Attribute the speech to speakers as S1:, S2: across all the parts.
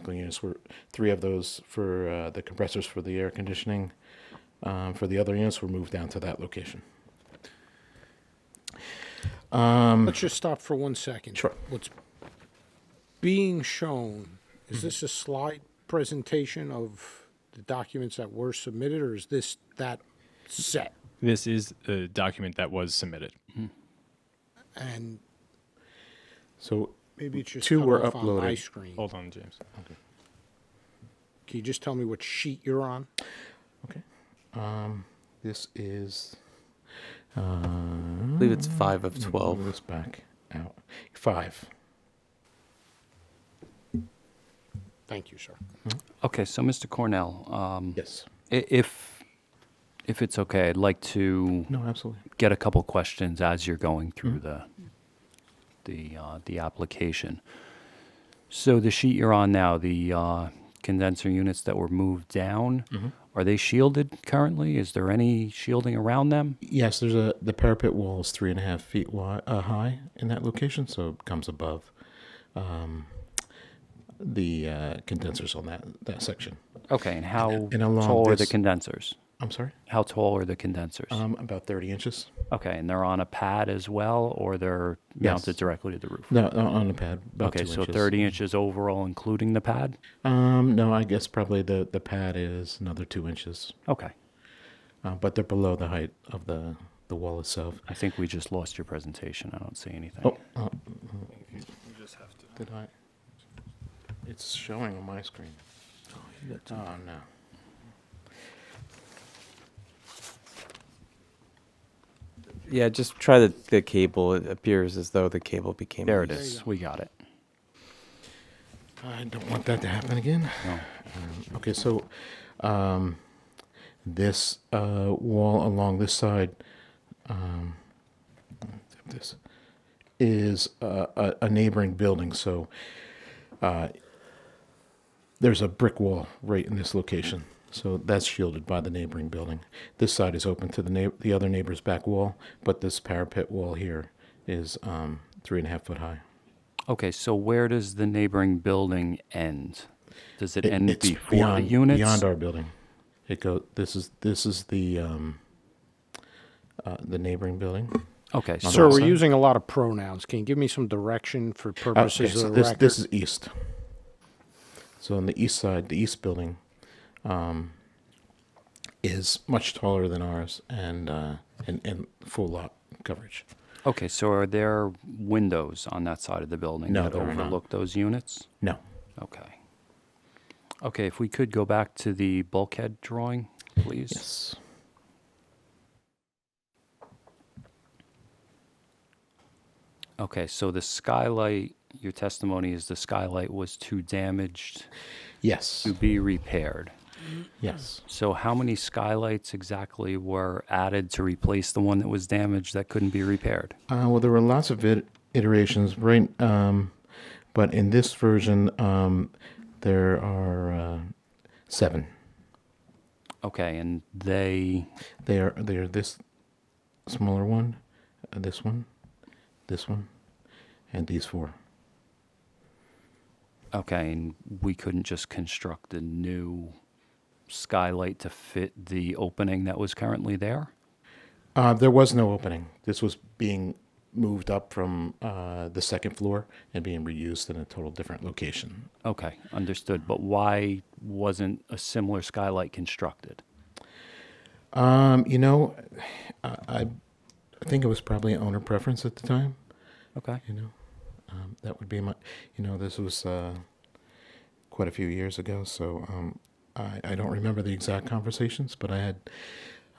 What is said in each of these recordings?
S1: cycling units were three of those for uh, the compressors for the air conditioning. Um, for the other units, were moved down to that location.
S2: Let's just stop for one second.
S1: Sure.
S2: What's being shown, is this a slide presentation of the documents that were submitted, or is this that set?
S3: This is the document that was submitted.
S2: And
S1: So
S2: maybe it's just
S1: Two
S2: cut
S1: were
S2: off on my
S1: uploaded.
S2: screen.
S3: Hold on, James.
S2: Can you just tell me what sheet you're on?
S1: okay, um, this is
S4: I believe it's five of 12.
S1: move this back out five.
S2: Thank you, sir.
S5: Okay, so Mr. Cornell, um,
S1: Yes.
S5: i- if, if it's okay, I'd like to
S1: No, absolutely.
S5: get a couple questions as you're going through the,
S1: Mm-hmm.
S5: the, uh, the application. So the sheet you're on now, the uh, condenser units that were moved down,
S1: Mm-hmm.
S5: are they shielded currently? Is there any shielding around them?
S1: Yes, there's a the parapet wall is three and a half feet wide, uh, high in that location, so it comes above um, the uh, condensers on that that section.
S5: Okay, and how
S1: and along
S5: tall are the
S1: this-
S5: condensers?
S1: I'm sorry,
S5: How tall are the condensers?
S1: um, about thirty inches.
S5: Okay, and they're on a pad as well, or they're mounted
S1: Yes.
S5: directly to the roof?
S1: No, on on the pad. About
S5: Okay,
S1: two
S5: so
S1: inches.
S5: 30 inches overall, including the pad?
S1: Um, no, I guess probably the the pad is another two inches,
S5: Okay.
S1: uh, but they're below the height of the the wall itself.
S5: I think we just lost your presentation. I don't see anything.
S1: Oh, uh, did I? It's showing on my screen. Oh, no.
S4: Yeah, just try the, the cable. It appears as though the cable became.
S5: There it
S4: loose.
S5: is. We got it.
S1: I don't want that to happen again.
S5: No.
S1: Okay, so um, this uh, wall along this side, um, this is uh, a, a neighboring building. So uh, there's a brick wall right in this location. So that's shielded by the neighboring building. This side is open to the neigh- the other neighbor's back wall, but this parapet wall here is um, three and a half foot high.
S5: Okay, so where does the neighboring building end? Does it,
S1: It-
S5: end
S1: it's
S5: before
S1: beyond,
S5: the units?
S1: beyond our building. It go. This is this is the um, uh, the neighboring building.
S5: okay, so
S2: Sir, we're
S1: side?
S2: using a lot of pronouns. Can you give me some direction for
S1: Uh,
S2: purposes
S1: so
S2: of the
S1: this
S2: record?
S1: this is east. So on the east side, the east building, um, is much taller than ours and uh, and and full lot coverage.
S5: okay, so are there windows on that side of the building
S1: No,
S5: that
S1: there are not.
S5: overlook those units?
S1: No.
S5: Okay. Okay, if we could go back to the bulkhead drawing, please.
S1: Yes.
S5: Okay, so the skylight, your testimony is the skylight was too damaged
S1: Yes.
S5: to be repaired.
S1: Yes.
S5: So, how many skylights exactly were added to replace the one that was damaged that couldn't be repaired?
S1: Uh, well, there were lots of it- iterations, right? Um, but in this version, um, there are uh, seven.
S5: Okay, and they,
S1: They are they are this smaller one, uh, this one, this one, and these four.
S5: okay, and we couldn't just construct a new skylight to fit the opening that was currently there?
S1: Uh, there was no opening. This was being moved up from uh, the second floor and being reused in a total different location.
S5: Okay, understood. But why wasn't a similar skylight constructed?
S1: Um, you know, I, I I think it was probably owner preference at the time.
S5: Okay,
S1: you know um, that would be my you know this was uh, quite a few years ago so um, I, I don't remember the exact conversations but i had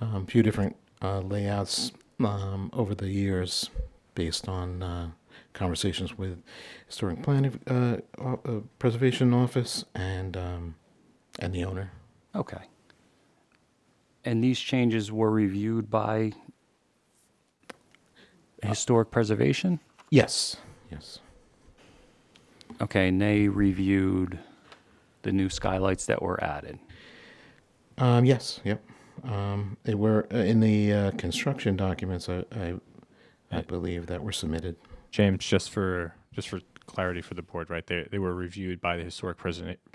S1: um, a few different uh, layouts um, over the years based on uh, conversations with historic planning uh, o- uh, preservation office and um, and the owner
S5: okay. And these changes were reviewed by historic preservation?
S1: yes yes
S5: Okay, and they reviewed the new skylights that were added.
S1: Um, yes, yep. Um, they were uh, in the uh, construction documents. I, I, I believe that were submitted.
S3: James, just for just for clarity for the board, right? They they were reviewed by the historic preserva-